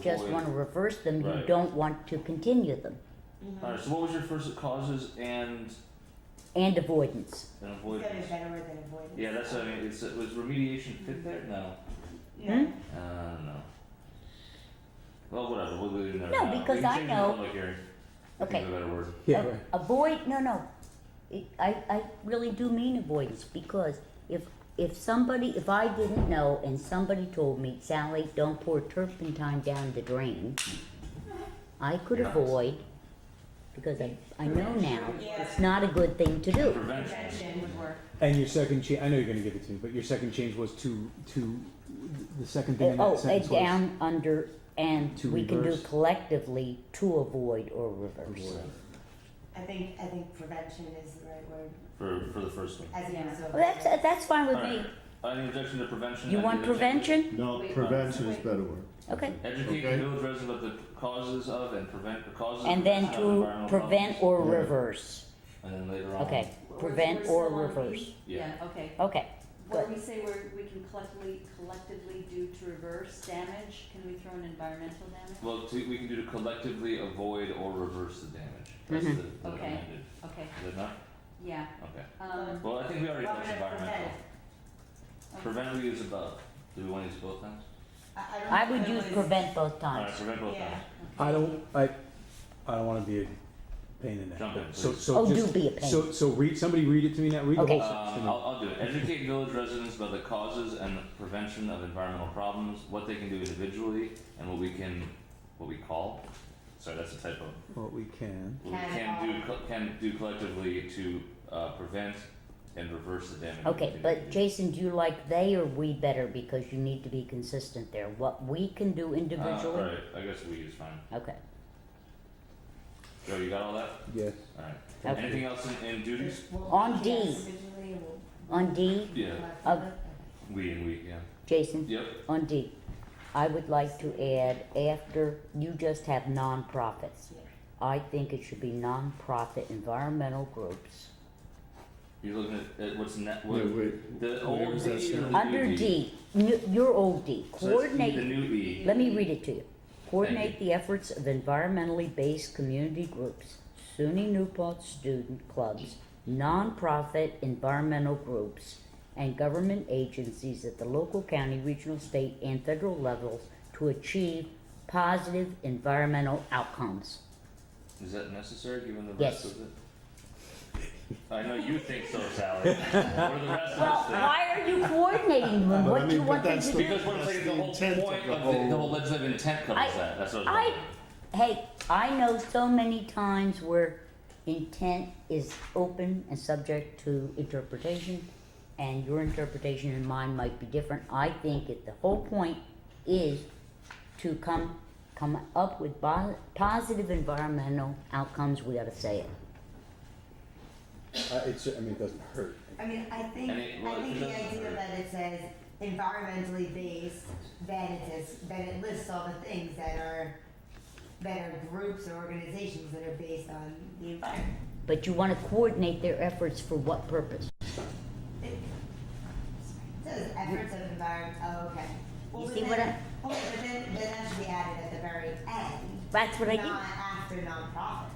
just Void. wanna reverse them, you Right. don't want to continue them. Alright, so what was your first causes and And avoidance. and It's gotta be a avoidance? better word than avoidance. Yeah, that's what I mean. It's, was remediation fit there? No. No. Hmm? Uh, I don't know. Well, whatever. We'll leave it there. No, now. because we can I change the know- Public hearing. Okay. Think of a better word. Yeah, A- right. Uh, Avoid, no, no. It- I, I really do mean avoidance because if, if somebody, if I didn't know and somebody told me, Sally, don't pour turpentine down the drain, I could Yeah. avoid, because I, I know now, it's Yeah. not a good thing to do. Prevention. Prevention would work. And your second change, I know you're gonna give it to me, but your second change was to, to, the second thing in Oh, uh, that sentence was. down, under, and To we can do reverse. collectively to avoid or reverse. Avoid. I think, I think prevention is the right word, For, for the first one. as opposed to Well, that's, avoidance. that's fine with Alright. me. Any objection to prevention? You Any want objection to- prevention? No, Wait, prevention is wait. better word. Okay. Educate Okay. the village residents of the causes of and prevent the causes of And then prevention of to environmental prevent problems. or Yeah. reverse. And then later on. Okay, We're- prevent we're or still on reverse. E? Yeah. Yeah, okay. Okay, Where Good. we say we're, we can collectively, collectively do to reverse damage, can we throw in environmental damage? Well, to, we can do to collectively avoid or reverse the damage. That's Mhm. the, the Okay. amended. Okay, Is that not? yeah, Okay. um, Well, I think we already Well, touched I'm gonna environmental. okay. Prevent we use above. Do we want to use both times? I, I don't. I would think use it was- prevent both times. Alright, prevent both Yeah. times. I don't, I, I don't wanna be a pain in the neck, Jump in, but so, please. so Oh, do just, be a pain. so, so read, somebody read it to me now, read the Okay. whole sentence to Um, me. I'll, I'll do it. Educate village residents about the causes and the prevention of environmental problems, what they can do individually, and what we can, what we call. Sorry, that's a typo. What we can, What we can do, co- can do collectively to uh, prevent and reverse the damage. Okay, we but do. Jason, do you like they or we better because you need to be consistent there? What we can do Uh, individually? alright, I guess we is fine. Okay, Joe, you got all that? yes, Alright. Okay. Anything else in, in duties? We'll- On D. yes, individually and we'll- on D, Yeah, Of- we and we, yeah. Jason, Yep. on D, I would like to add after, you just have nonprofits. Yeah. I think it should be nonprofit environmental groups. You're looking at, at what's net. Yeah, What, wait. the where old was that D or the new sentence? E? Under D, n- your old D, So that's coordinate. The new E. Let me read it to you. Coordinate the efforts of environmentally based community groups, SUNY Newport student clubs, nonprofit environmental groups, and government agencies at the local, county, regional, state, and federal levels to achieve positive environmental outcomes. Is that necessary given the Yes. rest of it? I know you think so, Sally. what do the rest Well, of us why are you coordinating them? But What I do you mean, want but them that's to think? Because do? what I'm saying, That's the the intent whole of point the of the, the whole- whole legislative intent covers I- that. That's what I was I, wondering. hey, I know so many times where intent is open and subject to interpretation, and your interpretation and mine might be different. I think that the whole point is to come come up with bo- positive environmental outcomes. We got to say it. uh, it's, I mean, it doesn't hurt. I mean, I think, And it- well, I think it the doesn't idea hurt. that it says environmentally based, then it says, then it lists all the things that are, that are groups or organizations that are based on the environment. But you want to coordinate their efforts for what purpose? It says efforts of environment, oh, okay. Well, You but see then- what I- Hold on, Oh, but then, then that should be added at the very end, That's what I not did. after nonprofits.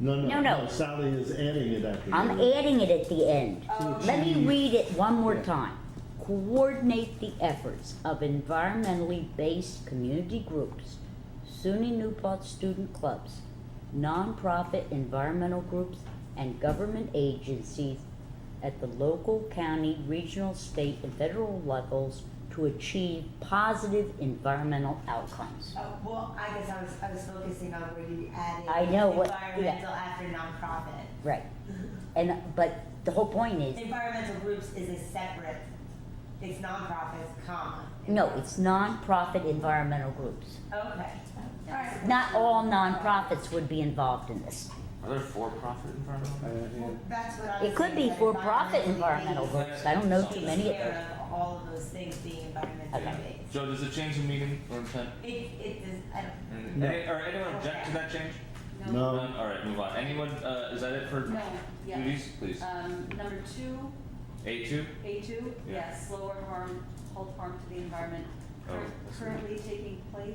No, no, No, no. no, Sally is adding it at the I'm end. adding it at the end. Oh, Let me read it one more Yeah. time. Coordinate the efforts of environmentally based community groups, SUNY Newport student clubs, nonprofit environmental groups, and government agencies at the local, county, regional, state, and federal levels to achieve positive environmental outcomes. Oh, well, I guess I was, I was focusing on where you added. I know what- yeah. Environmental after nonprofit. Right. And, but the whole point is, Environmental groups is a separate, it's nonprofits, comma. no, it's nonprofit environmental groups. Okay. Alright. Not all nonprofits would be involved in this. Are there for-profit Uh, environmental? Well, yeah. that's what I was It could be saying, for but profit environmentally environmental based groups, I don't know too takes many of care them. of all of those things being environmentally Okay. based. Joe, does it change the meaning or intent? It, it does, I don't. Anything- No. Any, or anyone object to that change? No. None? All right, move on. Anyone? Uh, is that it for No, yeah, duties? Please. um, number two, A two. A two, Yeah. yes, slower harm, hold harm to the environment Oh, cur- that's- currently taking place